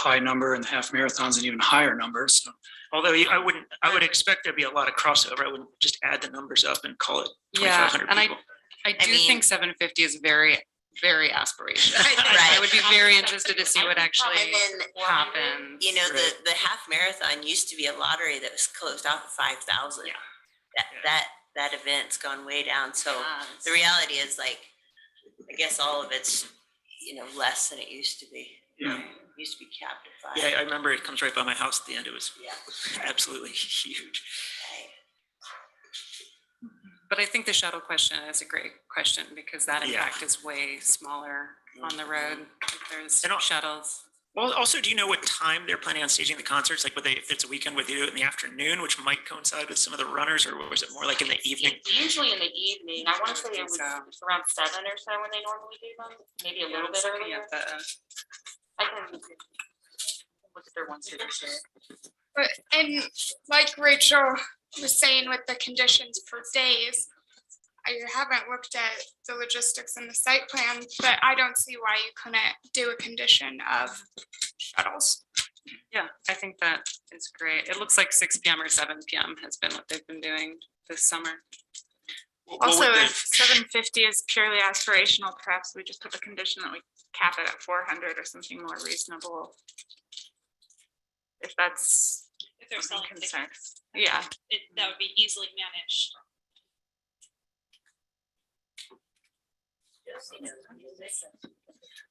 high number and the half marathon's an even higher number. So Although you- I wouldn't, I would expect there'd be a lot of crossover. I wouldn't just add the numbers up and call it Yeah, twenty-five hundred and I, people. I do mean- think seven fifty is very, very aspirational. Right. I would be very interested to see what actually And then, happens. You know, the, Right. the half marathon used to be a lottery that was closed off at five thousand. Yeah. That, Yeah. that, that event's gone way down, so Yes. the reality is like, I guess all of it's, you know, less than it used to be. Yeah. It Used to be capped at five. Yeah, I remember it comes right by my house at the end. It was Yeah, absolutely huge. right. But I think the shuttle question is a great question because that Yeah. impact is way smaller on the road. if There's And al- shuttles. Well, also, do you know what time they're planning on staging the concerts? Like, would they, if it's a weekend, would they do it in the afternoon, which might coincide with some of the runners, or was it more like in the evening? It's usually in the evening. I wanna I say think it was so. it's around seven or so when they normally do them, maybe Yeah, a little I'm bit looking earlier. at the- I can Look at their ones here. But, and like Rachel was saying with the conditions for days, I haven't looked at the logistics and the site plan, but I don't see why you couldn't do a condition of shuttles. Yeah, I think that is great. It looks like six PM or seven PM has been what they've been doing this summer. What would Also, the- if seven fifty is purely aspirational, perhaps we just put the condition that we cap it at four hundred or something more reasonable. If that's If they're a selling concern, tickets, yeah, it, that would be easily managed.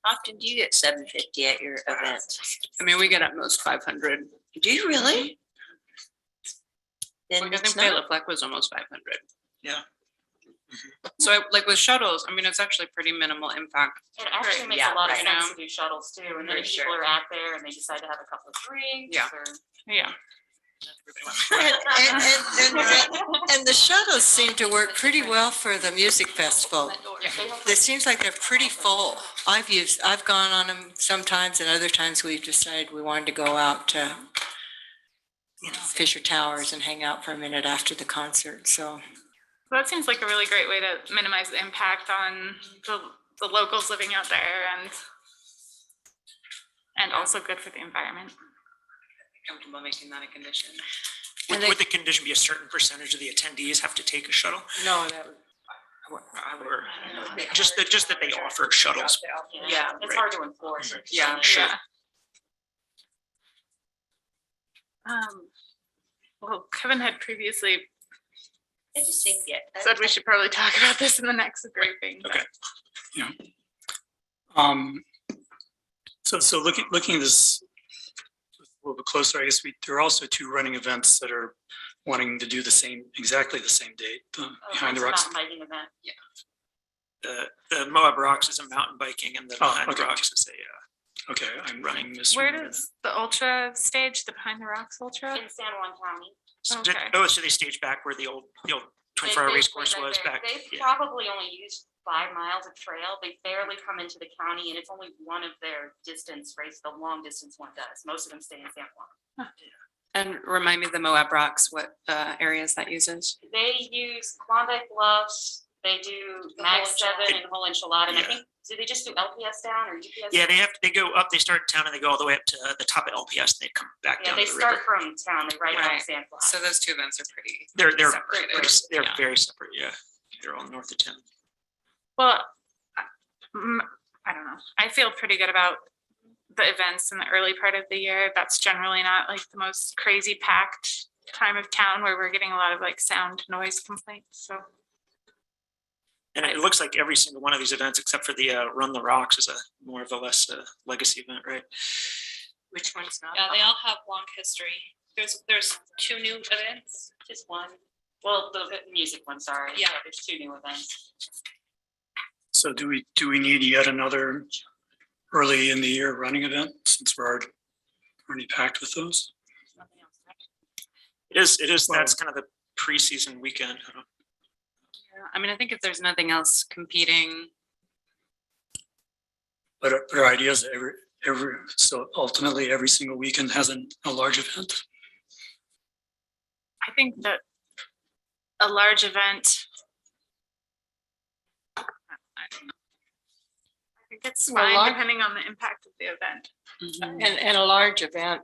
Often do you get seven fifty at your event? I mean, we get at most five hundred. Do you really? Then Like, I it's think Bela not, Fleck was almost five hundred. Mm-hmm. Yeah. So I- like with shuttles, I mean, it's actually pretty minimal impact. It actually makes yeah, a lot of right. sense to do shuttles too, and then For if people sure. are out there and they decide to have a couple of drinks Yeah. or. yeah. And, and, and- and, and the shuttles seem to work pretty well for the music festival. It seems like they're pretty full. I've used, I've gone on them sometimes and other times we've decided we wanted to go out to, you know, Fisher Towers and hang out for a minute after the concert, so. So That seems like a really great way to minimize the impact on the, the locals living out there and and also good for the environment. Comfortable making that a condition. Would, they- would the condition be a certain percentage of the attendees have to take a shuttle? No, that would. Or just that, just that they offer shuttles? Yeah, Right. it's hard to enforce. Mm-hmm. Yeah, Sure. Yeah. Um, well, Kevin had previously I just think, yeah. said we should probably talk about this in the next briefing. but- Okay. Um, so, so looking, looking this a little bit closer, I guess we, there are also two running events that are wanting to do the same, exactly the same date, Oh, the oh, Behind the Rocks. Biking event. The, the Moab Rocks is a mountain biking and the Oh, Behind the okay. Rocks is a, uh, Okay, I'm running this. Where does the ultra stage, the Behind the Rocks Ultra? In San Juan County. So did- Okay. Oh, so they staged back where the old, the old They- twenty-four hour they- race course they- was they- back. They've yeah. probably only used five miles of trail. They barely come into the county and it's only one of their distance race, the long distance one does. Most of them stay in San Juan. And remind me the Moab Rocks, what uh, areas that uses? They use Klondike Bluffs, they do The Mag whole Seven and whole enchilada. And I Yeah. think, do they just do LPS down or UPS? Yeah, down? they have, they go up, they start in town and they go all the way up to uh, the top of LPS and they come back Yeah, down they to the river. start from town, they ride down Right. San Juan. So those two events are pretty. They're, they're, separated, pretty s- they're yeah. very separate, yeah. They're all north of town. Well, I mm, I don't know. I feel pretty good about the events in the early part of the year. That's generally not like the most crazy packed time of town where we're getting a lot of like sound noise complaints. So And it looks like every single one of these events, except for the, uh, Run the Rocks is a more of a less, uh, legacy event, right? Which one's not? Yeah, they all have long history. There's, there's two new events. Just one, well, the the music one, sorry. Yeah. There's two new events. So do we, do we need yet another early in the year running event since we're already- already packed with those? It is, it is, Well- that's kind of the preseason weekend. huh? I mean, I think if there's nothing else competing, But our- but our idea is every, every, so ultimately every single weekend has an- a large event. I think that a large event. I don't know. I think It's Well, fine, like- depending on the impact of the event. And, and a large event